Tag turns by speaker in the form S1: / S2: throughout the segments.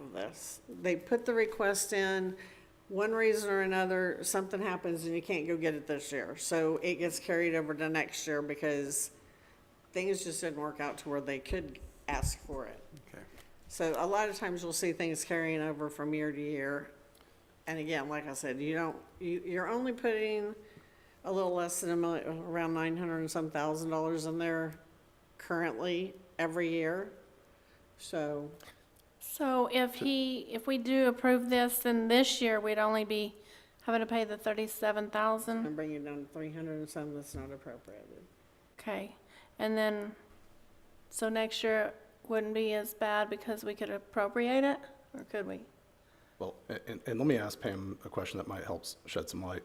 S1: of this. They put the request in, one reason or another, something happens and you can't go get it this year. So it gets carried over to next year because things just didn't work out to where they could ask for it.
S2: Okay.
S1: So a lot of times you'll see things carrying over from year to year. And again, like I said, you don't, you, you're only putting a little less than a million, around nine hundred and some thousand dollars in there currently every year. So,
S3: So if he, if we do approve this, then this year we'd only be having to pay the thirty-seven
S1: I'm
S3: thousand?
S1: bringing down to three hundred and some that's not appropriated.
S4: Mm-hmm.
S3: Okay, and then, so next year wouldn't be as bad because we could appropriate it, or could we?
S2: Well, a- and, and let me ask Pam a question that might help s- shed some light.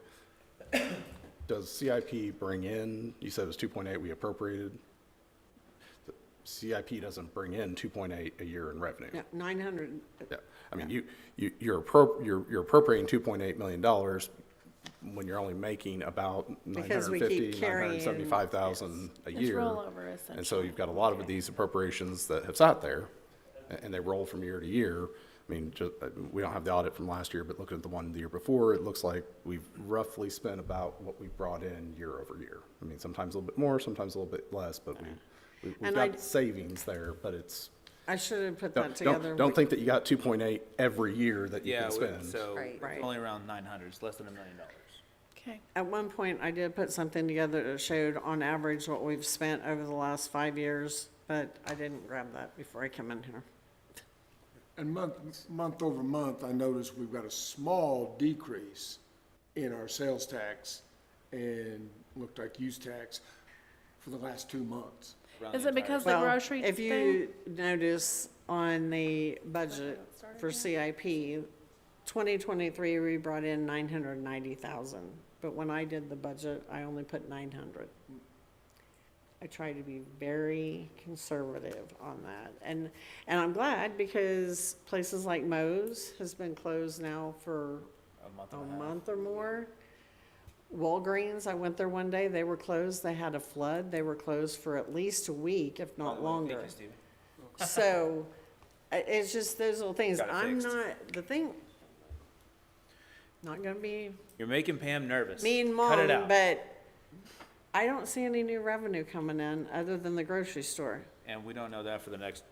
S2: Does CIP bring in, you said it was 2.8 we appropriated? The CIP doesn't bring in 2.8 a year in revenue?
S1: Yeah, nine hundred,
S2: Yeah, I mean, you, you, you're appro, you're, you're appropriating two point eight million dollars when you're only making about nine
S1: Because
S2: hundred
S1: we keep
S2: fifty, nine hundred seventy-five thousand a
S3: It's
S2: year.
S3: rollover,
S2: And so
S3: essentially.
S2: you've got a lot of these appropriations that have sat there, a- and, they roll from year to year. I mean, ju- uh we don't have the audit from last year, but looking at the one the year before, it looks like we've roughly spent about what we brought in year over year. I mean, sometimes a little bit more, sometimes a little bit less, but we, we- we've
S1: And I-
S2: got savings there, but it's.
S1: I should have put that
S2: Don't- Don't,
S1: together.
S2: don't think that you got two point eight every year that you can
S4: Yeah, we-
S2: spend.
S4: so
S1: Right.
S4: it's
S1: Right.
S4: only around nine hundred, it's less than a million dollars.
S3: Okay,
S1: At one point, I did put something together that showed on average what we've spent over the last five years, but I didn't grab that before I came in here.
S5: And month, month over month, I noticed we've got a small decrease in our sales tax and looked like use tax for the last two months.
S4: around
S3: is
S4: the
S3: it
S4: entire-
S3: because the
S1: Well,
S3: grocery
S1: If
S3: thing?
S1: you notice on the budget for CIP, twenty twenty-three, we brought in nine hundred and ninety thousand, but when I did the budget, I only put nine hundred. I try to be very conservative on that, and, and I'm glad because places like Mo's has been closed now for
S4: A month
S1: a
S4: and a half.
S1: month or more. Walgreens, I went there one day, they were closed, they had a flood, they were closed for at least a week, if
S4: By
S1: not
S4: the way, thank you,
S1: longer.
S4: Steve.
S1: So, i- it's just those little things,
S4: Got it
S1: I'm
S4: fixed.
S1: not, the thing, not gonna be
S4: You're making Pam nervous.
S1: mean
S4: Cut it
S1: mom,
S4: out.
S1: but I don't see any new revenue coming in other than the grocery store,
S4: And we don't know that for the next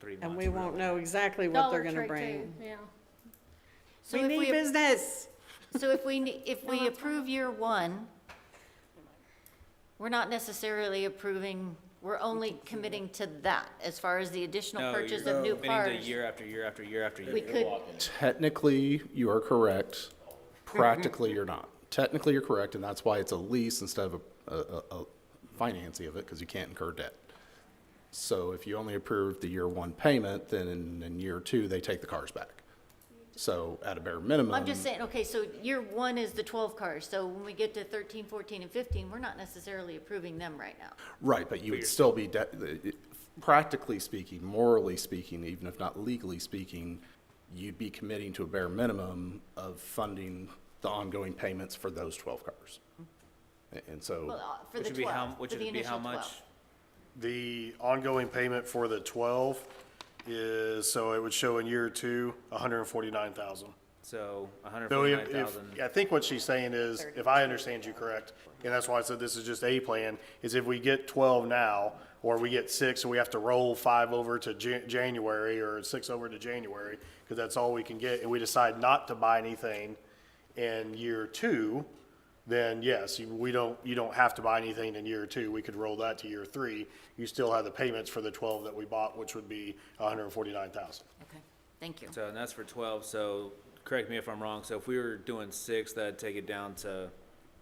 S4: three months.
S1: and we won't
S4: really.
S1: know exactly what they're gonna bring.
S3: Yeah.
S6: So
S1: We
S6: if
S1: need
S6: we,
S1: business,
S6: so if we, ne- if we approve year one, we're not necessarily approving, we're only committing to that as far as the
S4: No,
S6: additional
S4: you're
S6: purchase of new
S4: committing to
S6: cars.
S4: Year after year after year after year.
S6: We
S4: You're
S6: could-
S4: walking.
S2: Technically, you are correct. Practically, you're not. Technically, you're correct, and that's why it's a lease instead of a, a, a financing of it, because you can't incur debt. So if you only approve the year one payment, then in, in year two, they take the cars back. So at a bare minimum.
S6: I'm just saying, okay, so year one is the twelve cars, so when we get to thirteen, fourteen, and fifteen, we're not necessarily approving them right now.
S2: Right, but you would still be, de- it- practically speaking, morally speaking, even if not legally speaking, you'd be committing to a bare minimum of funding the ongoing payments for those 12 cars. A- And
S6: Well,
S2: so,
S6: uh, for
S4: Which
S6: the
S4: would be how,
S6: twelve, for
S4: which
S6: the
S4: would be how
S6: initial
S4: much?
S6: twelve.
S7: The ongoing payment for the twelve is, so it would show in year two, hundred and forty-nine thousand.
S4: So a hundred
S7: So
S4: forty-nine
S7: if, if,
S4: thousand.
S7: I think what she's saying is, if I understand you correct, and that's why I said this is just a plan, is if we get twelve now, or we get six, and we have to roll five over to Jan- January, or six over to January, because that's all we can get, and we decide not to buy anything in year two, then yes, you- we don't, you don't have to buy anything in year two, we could roll that to year three. You still have the payments for the twelve that we bought, which would be hundred and forty-nine thousand.
S6: Okay, thank you.
S4: So, and that's for twelve, so correct me if I'm wrong. So if we were doing six, that'd take it down to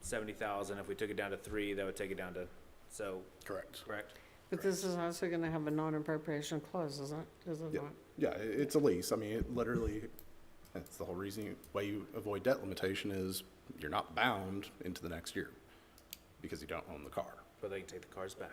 S4: seventy thousand. If we took it down to three, that would take it down to, so,
S7: Correct.
S4: correct?
S1: but this is also gonna have a non-appropriation clause, isn't it, is it
S2: yeah,
S1: not?
S2: yeah, i- it's a lease. I mean, it literally, that's the whole reason, you- why you avoid debt limitation is you're not bound into the next year because you don't own the car.
S4: But they can take the cars back.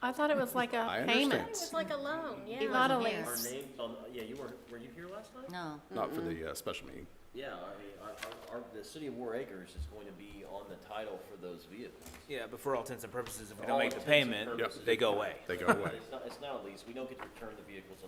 S3: I thought it was like
S2: I
S3: a
S2: understand.
S3: payment,
S8: It's like a loan, yeah.
S3: not a
S6: wasn't
S3: lease.
S6: here.
S9: Our names on, yeah, you were, were you here last night?
S6: No.
S2: Not for
S6: Mm-hmm.
S2: the uh, special meeting.
S9: Yeah, I mean, our, our, our- the city of War Acres is going to be on the title for those vehicles.
S4: Yeah, but for all intents and purposes, if we
S9: all
S4: don't make the
S9: intents and
S4: payment,
S9: purposes,
S4: they go away.
S2: They go away.
S9: It's not, it's not a lease, we don't get to return the vehicles